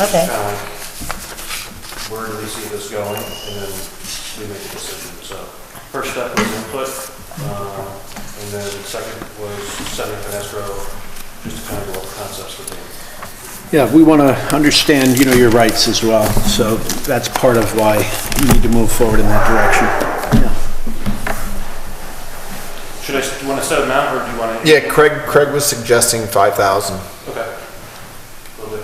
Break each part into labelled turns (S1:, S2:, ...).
S1: Okay.
S2: kind of where do we see this going, and then we make a decision. So first step was input, um, and then second was setting up an escrow, just to kind of go over concepts with them.
S3: Yeah, we want to understand, you know, your rights as well, so that's part of why you need to move forward in that direction. Yeah.
S2: Should I, do you want to set them out, or do you want to?
S4: Yeah, Craig, Craig was suggesting five thousand.
S2: Okay. Will do.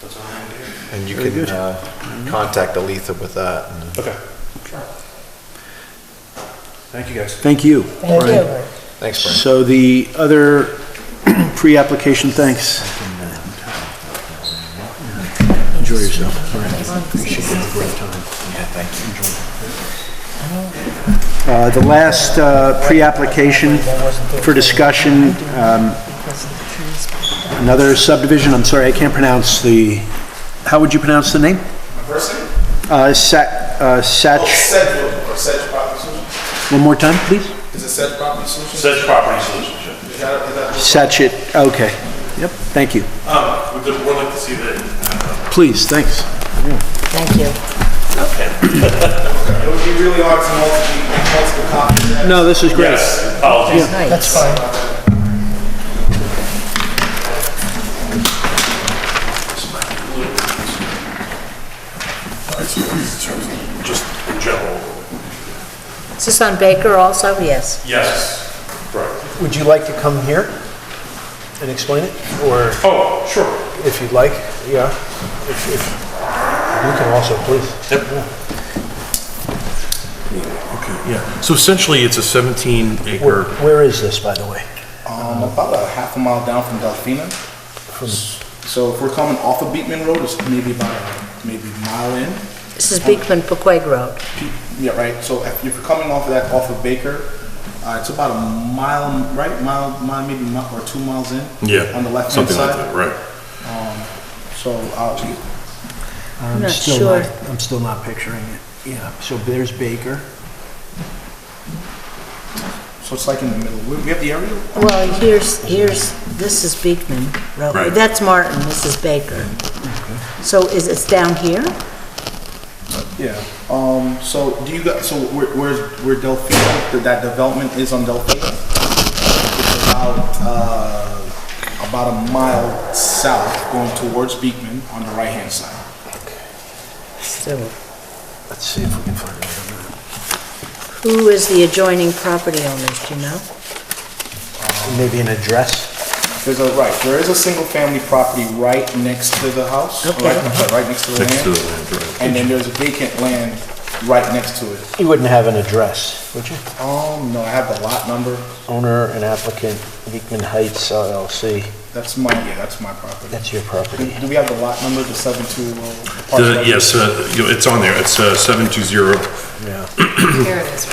S2: That's all I'm gonna do.
S4: And you
S3: Very
S4: can,
S3: good.
S4: uh, contact Aletha with that. and-
S2: Okay. Thank you, guys.
S3: Thank you.
S1: Thank
S3: Brian.
S1: you.
S4: Thanks, Brian.
S3: So the other pre-application, thanks. Enjoy yourself. Uh, The last uh, pre-application for discussion, um, another subdivision, I'm sorry, I can't pronounce the, how would you pronounce the name?
S5: Person?
S3: Uh, Sa- uh,
S5: Oh,
S3: Sach,
S5: Sedgwood or Sedge Property Solutions?
S3: one more time, please?
S5: Is it Sedge Property Solutions?
S2: Sedge Property Solutions, yeah.
S5: Is that- is that-
S3: Sachet, okay. Yep, thank you.
S6: Um, we'd we'd like to see the,
S3: Please, thanks.
S1: Thank you.
S5: It would be really hard to multiple, multiple copies. of that.
S3: No, this is great.
S6: yes, apologies.
S1: That's fine.
S6: Just in general,
S1: Is this on Baker also? Yes.
S6: yes. Right.
S7: Would you like to come here and explain it? Or
S6: Oh, sure.
S7: if you'd like, yeah. If, if, you can also, please.
S6: Yeah, so essentially, it's a 17
S7: Where,
S6: acre,
S7: where is this, by the way?
S8: Um, about a half a mile down from Delphina. So if we're coming off of Beekman Road, it's maybe about, a- maybe a mile in.
S1: This is Beekman Paquag Road.
S8: Yeah, right, so if if you're coming off of that, off of Baker, uh, it's about a mile, right, mile, mile, maybe mile or two miles in.
S6: yeah.
S8: On the left-hand
S6: Something like
S8: side.
S6: that, right.
S8: So, uh,
S1: I'm not
S7: still
S1: sure.
S7: I'm still not picturing it. Yeah, so there's Baker.
S8: so it's like in the middle. We we have the aerial?
S1: Well, here's, here's, this is Beekman Road.
S6: Right.
S1: That's Martin, this is Baker. So is it's down here?
S8: Yeah. Um, so do you got, so where, where's, where Delphina, that- that development is on Delphina? It's about, uh, about a mile south going towards Beekman on the right-hand side.
S1: So
S7: Let's see if we can find it.
S1: who is the adjoining property owners, do you know?
S7: Maybe an address?
S8: There's a, right, there is a single-family property right next to the house.
S1: Okay.
S8: Right, I'm sorry, right next to the
S6: Next to the
S8: land.
S6: land, right.
S8: And then there's vacant land right next to it.
S7: You wouldn't have an address, would you?
S8: Um, no, I have the lot number.
S7: Owner and applicant, Beekman Heights LLC.
S8: That's my, yeah, that's my property.
S7: That's your
S8: Do
S7: property.
S8: do we have the lot number, the oh? seven-two?
S6: The- Yes, uh, you know, it's on there, it's uh, 720-250.
S7: Yeah.
S9: Here it is.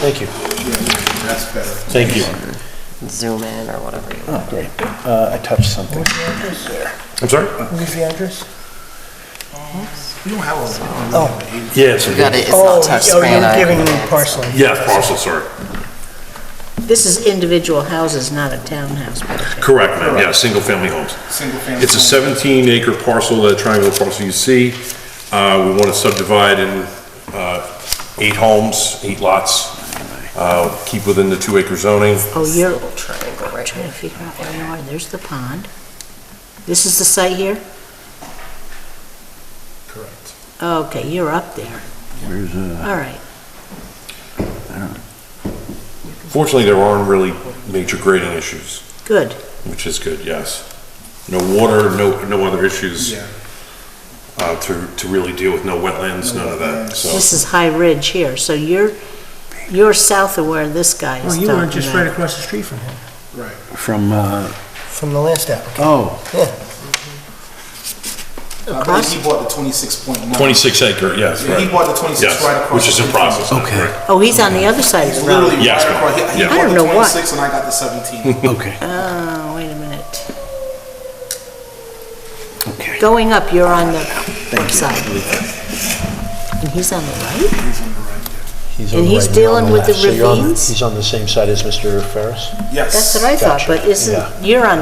S7: Thank you.
S8: That's better.
S7: Thank you.
S9: Zoom in or whatever you want.
S7: Great. Uh, I touched something.
S6: I'm sorry?
S7: Where's the address?
S8: We don't have a, oh,
S6: Yeah, it's,
S9: Got it, it's not touchscreen. I-
S6: yeah, parcel, sorry.
S1: This is individual houses, not a townhouse. project.
S6: Correct, ma'am, yeah, single family homes.
S8: single-family.
S6: It's a 17 acre parcel, that triangular parcel you see. Uh, We want to subdivide in uh, eight homes, eight lots, uh, keep within the two acre zoning.
S1: Oh, you're
S9: Little triangle right
S1: trying to
S9: here.
S1: figure out where you are. There's the pond. This is the site here?
S8: Correct.
S1: Okay, you're up there.
S3: Where's, uh,
S1: All right.
S6: Fortunately, there aren't really major grading issues,
S1: Good.
S6: which is good, yes. No water, no, no other issues
S8: Yeah.
S6: uh, to, to really deal with, no wetlands, none of that, so.
S1: This is High Ridge here, so you're, you're south of where this guy is talking about.
S7: across the street from him.
S8: Right.
S3: From, uh,
S7: From the last applicant.
S3: oh,
S8: I believe he bought the twenty-six point nine.
S6: 26 acre, yes,
S8: Yeah,
S6: right.
S8: he bought the twenty-six
S6: Yes,
S8: right across.
S6: which is
S8: the
S6: in
S8: street from
S6: process.
S8: us.
S6: now,
S3: Okay.
S6: right.
S1: Oh, he's on the other side of
S8: He's
S1: the road.
S8: literally right
S6: Yes, ma'am.
S8: across. He- he
S6: Yeah.
S8: bought
S1: I don't
S8: the
S1: know why.
S8: Twenty-six and I got the seventeen.
S3: okay,
S1: Oh, wait a minute.
S3: okay.
S1: Going up, you're on the right side. And he's on the right?
S7: He's on
S1: And
S7: the right, you're
S1: he's
S7: on
S1: dealing
S7: left.
S1: with the
S7: So you're on-
S1: ravines?
S7: He's on the same side as Mr. Ferris?
S8: Yes.
S1: That's what I thought,
S7: Gotcha.
S1: but
S7: Yeah.
S1: isn't, you're on